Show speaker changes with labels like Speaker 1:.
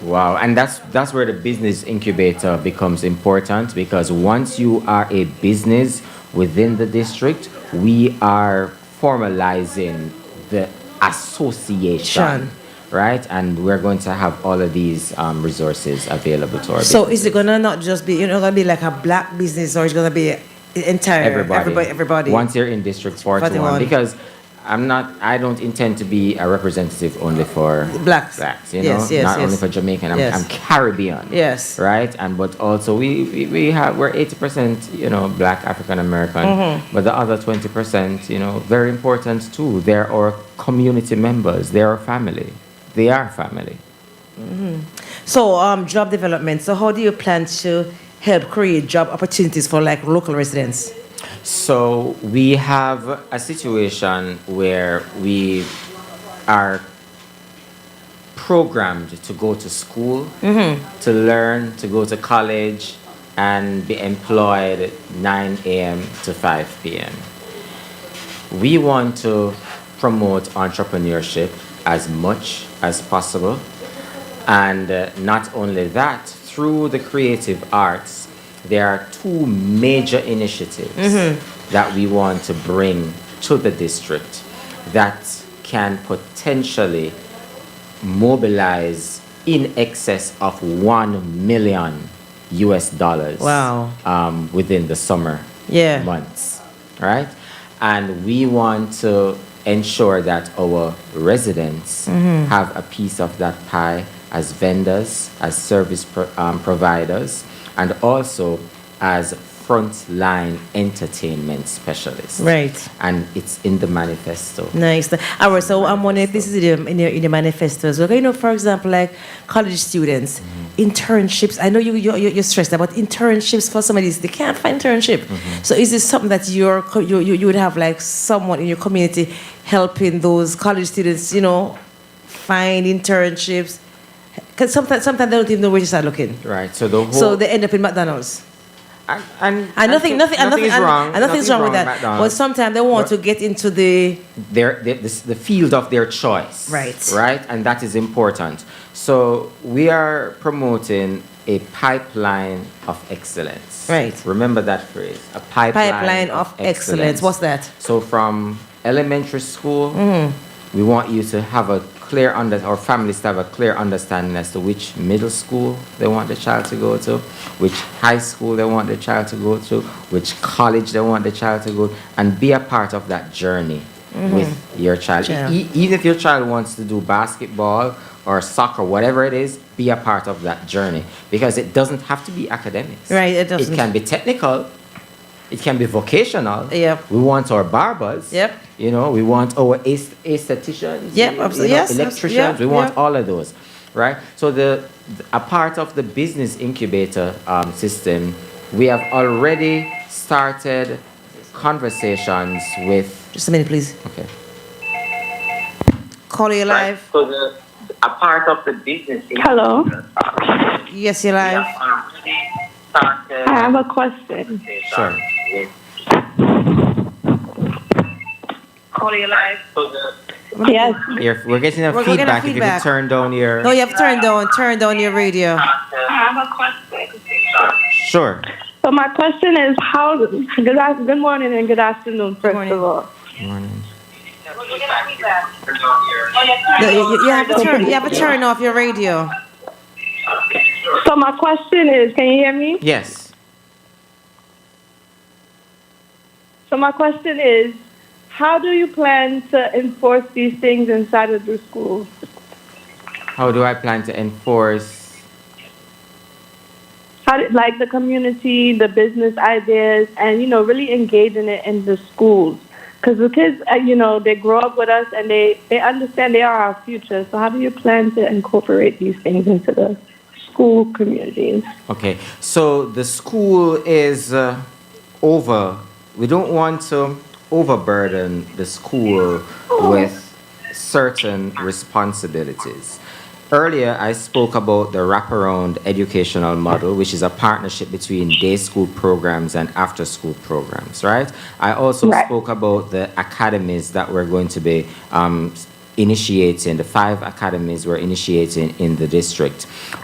Speaker 1: Wow, and that's that's where the business incubator becomes important because once you are a business within the district, we are formalizing the association,
Speaker 2: Shan.
Speaker 1: right? And we're going to have all of these um, resources available to our
Speaker 2: So is
Speaker 1: businesses.
Speaker 2: it gonna not just be, you know, gonna be like a black business or it's gonna be entire,
Speaker 1: everybody,
Speaker 2: uh, everybody, everybody?
Speaker 1: Once you're in District 41,
Speaker 2: 41.
Speaker 1: because I'm not, I don't intend to be a representative only for
Speaker 2: Blacks.
Speaker 1: blacks, you
Speaker 2: Yes,
Speaker 1: know,
Speaker 2: yes,
Speaker 1: not only
Speaker 2: yes.
Speaker 1: for Jamaican, I'm,
Speaker 2: Yes.
Speaker 1: I'm Caribbean,
Speaker 2: Yes.
Speaker 1: right? And but also we, we, we have we're 80% you know black African American,
Speaker 2: Mm-hmm.
Speaker 1: but the other 20% you know very important too. They're our community members, they're our family, they are family.
Speaker 2: So um, job development. So how do you plan to help create job opportunities for like local residents?
Speaker 1: So we have a situation where we are programmed to go to school, to learn, to go to college, and be employed 9 a.m. to 5 p.m. We want to promote entrepreneurship as much as possible. And uh, not only that, through the creative arts, there are two major initiatives that we want to bring to the district that can potentially mobilize in excess of 1 million US dollars
Speaker 2: Wow.
Speaker 1: um, within the summer
Speaker 2: Yeah.
Speaker 1: months, right? And we want to ensure that our residents
Speaker 2: Mm-hmm.
Speaker 1: have a piece of that pie as vendors, as service pro- um, providers, and also as frontline entertainment specialists.
Speaker 2: Right. Mm.
Speaker 1: And it's in the manifesto.
Speaker 2: Nice. All right. So I'm wondering if this is in the, in the, in the manifesto as well. You know, for example, like college students, internships. I know you, you, you- you're stressed about internships for some of these. They can't find internship. So is this something that you're, co- you, you, you would have like someone in your community helping those college students, you know, find internships? Because sometimes, sometimes they don't even know where to start looking.
Speaker 1: Right. So the whole
Speaker 2: So they end up in McDonald's.
Speaker 1: and, and,
Speaker 2: And nothing, nothing, and nothing,
Speaker 1: nothing's
Speaker 2: and,
Speaker 1: wrong.
Speaker 2: and nothing's wrong with that. But
Speaker 1: McDonald's.
Speaker 2: sometimes they want
Speaker 1: But-
Speaker 2: to get into the
Speaker 1: their, their this, the field of their choice.
Speaker 2: Right.
Speaker 1: Right, and that is important. So we are promoting a pipeline of excellence.
Speaker 2: Right.
Speaker 1: Remember that phrase. A pipeline,
Speaker 2: pipeline of excellence. What's that?
Speaker 1: So from elementary school,
Speaker 2: Mm.
Speaker 1: we want you to have a clear under or families to have a clear understanding as to which middle school they want the child to go to, which high school they want the child to go to, which college they want the child to go, and be a part of that journey with your child. E-
Speaker 2: Mm-hmm. Yeah.
Speaker 1: e- even if your child wants to do basketball or soccer, whatever it is, be a part of that journey because it doesn't have to be academics.
Speaker 2: Right, it doesn't.
Speaker 1: It can be technical. It can be vocational.
Speaker 2: Yep.
Speaker 1: We want our barbers.
Speaker 2: Yep.
Speaker 1: You know, we want our aes- aestheticians.
Speaker 2: Yep,
Speaker 1: you know,
Speaker 2: abso- yes, abso-
Speaker 1: Electricians.
Speaker 2: yeah,
Speaker 1: we want
Speaker 2: yeah.
Speaker 1: all of those, right? So the, th- a part of the business incubator um, system, we have already started conversations with.
Speaker 2: Just a minute, please.
Speaker 1: Okay.
Speaker 2: Caller, you're
Speaker 3: Right.
Speaker 2: live.
Speaker 3: So the, a part of the business. is-
Speaker 4: Hello.
Speaker 2: Yes, you're
Speaker 3: We
Speaker 2: live.
Speaker 3: have already started
Speaker 4: I have a question.
Speaker 3: conversation
Speaker 1: Sure.
Speaker 3: with- So the-
Speaker 4: Yes.
Speaker 1: If we're getting a
Speaker 2: We're gonna get a
Speaker 1: feedback, if you
Speaker 2: feedback.
Speaker 1: could turn down your.
Speaker 2: No, you have to turn down, turn down your radio.
Speaker 3: uh,
Speaker 4: I have a question.
Speaker 1: Sure.
Speaker 4: So my question is how good af- good morning and good afternoon first
Speaker 2: morning.
Speaker 4: of all.
Speaker 2: No, you, you- you have to turn, you have to turn off your radio.
Speaker 4: So my question is can you hear me?
Speaker 1: Yes.
Speaker 4: So my question is how do you plan to enforce these things inside of the school?
Speaker 1: How do I plan to enforce?
Speaker 4: How do, like the community, the business ideas and you know really engaging it in the schools. Because the kids, uh, you know, they grow up with us and they, they understand they are our future. So, how do you plan to incorporate these things into the school communities?
Speaker 1: Okay, so the school is uh, over. We don't want to overburden the school with certain responsibilities. Earlier, I spoke about the wraparound educational model, which is a partnership between day school programs and after school programs, right? I also
Speaker 4: Right.
Speaker 1: spoke about the academies that we're going to be um, initiating, the five academies we're initiating in the district